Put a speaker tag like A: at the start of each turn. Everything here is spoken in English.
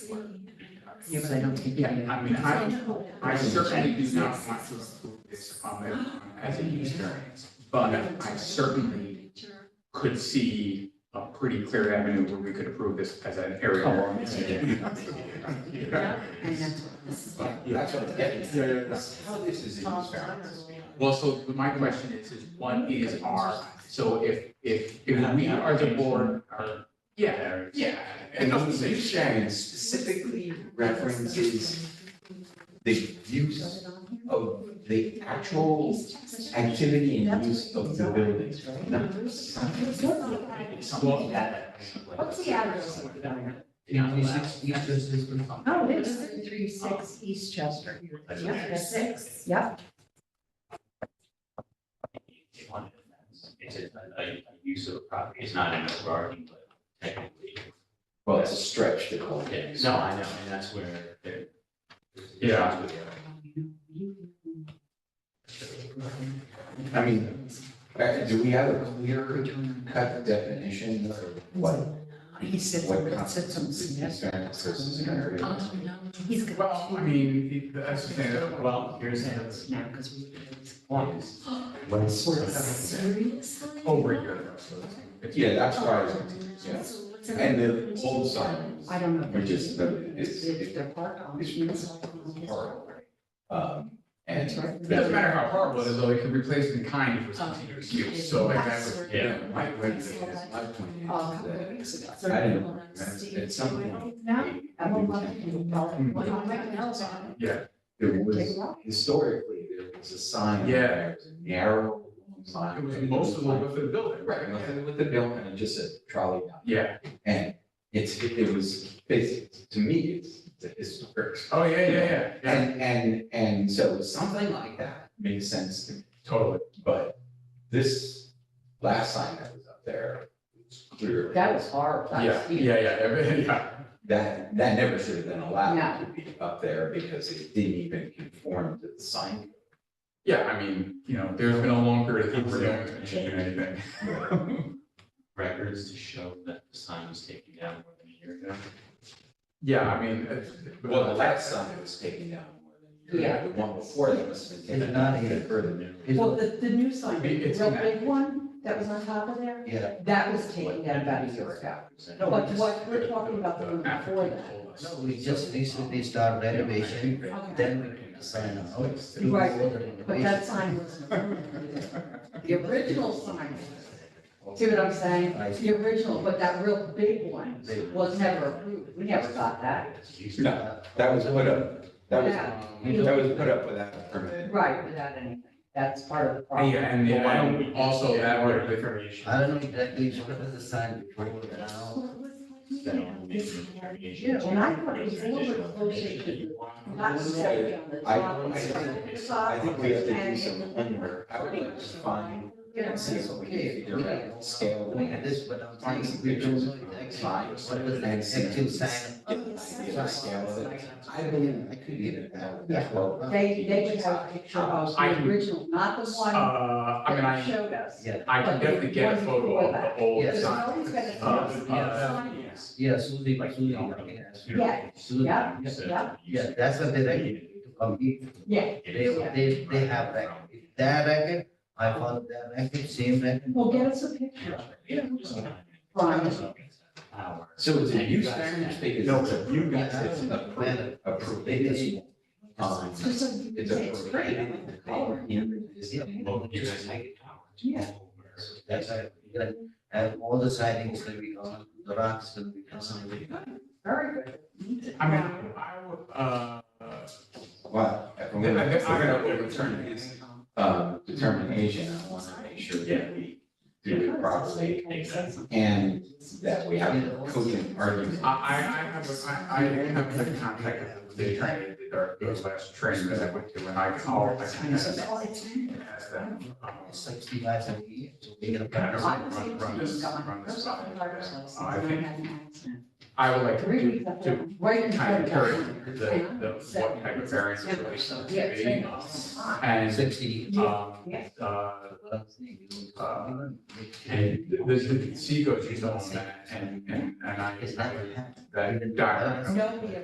A: Yeah, but I don't think.
B: Yeah, I mean, I, I certainly do not want to approve this comment as a use variance, but I certainly could see a pretty clear avenue where we could approve this as an area.
C: Oh,
B: variance.
A: And that's what this is.
B: But, yeah.
C: That's what I'm getting at.
B: Yeah, yeah, yeah.
C: That's How this is in fact.
B: Well, so my question is, is what is our, so if, if, if we are the board, are, yeah, yeah. It
C: And
B: doesn't
C: the
B: say
C: use
B: shit.
C: variance specifically references the use of the actual activity and use of the buildings, not
B: Something that.
D: What's the address?
B: Yeah,
A: You just- you just- this was-
D: Oh, it is three six East Chester. Yep, that's six, yep.
E: It's a, a, a use of a property, it's not an overarching, but technically.
C: Well, it's a stretch to call it.
E: Yeah, no, I know, and that's where there. there's-
B: Yeah.
C: I mean, uh, do we have a clear cut definition of what,
A: He said,
C: what
A: it sits on
C: constitutes
A: some.
C: use variance versus an area?
A: Oh, no, he's got.
B: Well, I mean, that's the thing, well, here's.
A: Now, because we.
B: One's
C: What's-
A: Seriously?
C: Oh,
B: over here.
C: Yeah, that's why, I was- yeah. And the old signs,
A: I don't know.
C: Which is the- it's-
A: If they're part owned.
C: it's- it's part. um, and.
A: That's right.
B: It doesn't matter how horrible it is, though, it can be replaced in kind for some serious use, so like that was.
E: Yeah.
C: My, my, my point
A: Oh, a
C: is
A: couple of
C: that
A: weeks ago.
C: I didn't remember at some point.
D: No,
C: I'm There was, historically, there was a sign.
B: Yeah.
C: there, it was a Narrow sign.
B: It was most of the width of the building.
C: Right, nothing with the bill and it just said trolley down.
B: Yeah,
C: And it's, it was, it's, to me, it's the historic.
B: oh, yeah, yeah, yeah, yeah,
C: And, and, and so something like that makes sense to me.
B: totally.
C: But this last sign that was up there, it's clear.
A: That was hard. That was
B: Yeah,
A: huge.
B: yeah, yeah, yeah.
C: That, that never should have been allowed
A: No.
C: to be up there because it didn't even conform to the sign.
B: Yeah, I mean, you know, there's been a long period of time where no one's been doing anything.
E: Records to show that the sign was taken down more than a year ago.
B: Yeah, I mean, it's.
C: Well, the last sign was taken down more than.
A: Yeah.
C: The one before that must have been
A: It's
C: taken
A: not
C: down even further
A: Well, the, the new sign,
B: It-
A: the
B: it's
A: real
B: in that-
A: big one that was on top of there,
C: Yeah.
A: that was taken down about a year ago. No, but what we're talking about the one before that.
F: No, we just recently start renovation, then we put the sign out. do
A: Right,
F: all the
A: But
F: renovation.
A: that sign was, the original sign, see what I'm saying?
F: I see.
A: The original, but that real big one was never approved, we never got that.
C: No, that was put up, that was,
A: Yeah,
C: that was put up without a permit.
A: Right, without anything, that's part of the problem.
B: Yeah, and
E: Well, why don't
B: then
E: we-
B: also that would have been.
F: I don't know exactly what was the sign before and now.
A: Yeah, and I thought it was a little bit closer to the Not solely on the
C: I,
A: top,
C: I,
A: it's on the
C: think-
A: side.
C: I think we have to do some homework. I would like to find,
A: You know,
C: see if we can figure out scale.
F: Look at this, but I'm saying, we don't know exactly what was the actual sign.
C: Get an idea of the scale of it. I believe I could get it out.
A: Yeah. They, they would have a picture of
B: I
A: the
B: can-
A: original, not the
B: Uh,
A: one
B: I mean,
A: that you
B: I,
A: showed us.
F: Yeah,
B: I can definitely get a photo of the old
A: There's
B: sign.
A: always been a
B: Uh,
A: sign.
B: uh,
F: yeah, Suzy, Suzy, yeah.
A: Yeah,
F: Suzy,
A: yeah,
F: yeah.
A: yeah.
F: Yeah, that's what they like to complete.
A: Yeah,
F: They, they, they have record. If That record, I follow that record, same record.
A: well, get us a picture of it. Fine.
C: So it's a use variance because
B: No,
C: it's a,
B: you
F: guys-
C: it's a per, a prohibited, um,
A: Just so you can
C: it's
A: say
C: a
A: it's great.
C: prohibited thing. It's
F: Yeah.
C: not-
E: Well, you guys have it powered.
A: Yeah.
F: That's why, we gotta have all the sightings will be gone, the rocks will be gone.
A: Very good.
B: I mean, I would, uh,
C: Well, if I'm
B: I-
C: gonna,
B: I-
C: if I'm gonna overturn this, um, determination, I wanna make sure that we do it properly and that we have a cogent argument.
B: I, I, I have, a- I, I have the contact of the attorney, that our- the last training that I went to, and I can, I'll- I can ask
A: So, it's-
B: ask them. um,
F: Sixty-five and eight, so we gotta.
B: Yeah, I don't-
A: I was able
B: Run
A: to
B: this-
A: use gone.
B: run this
A: First
B: side.
A: off, driver's license,
B: I
A: and I
B: think-
A: had an accident.
B: I would like to
A: Three
B: do,
A: weeks after
B: to
A: that, right in
B: kind
A: front
B: of
A: of
B: carry
A: us.
B: the, the, what type of variance is really supposed to
A: Yeah, it's
B: be.
A: very close. Ah,
B: And,
F: Sixty.
B: um,
A: Yeah.
B: uh,
F: what I'm saying, you know,
B: Uh,
F: and
B: and the, the seagulls used on that, and, and, and I,
F: Is that what happened?
B: that doctor.
A: No, we have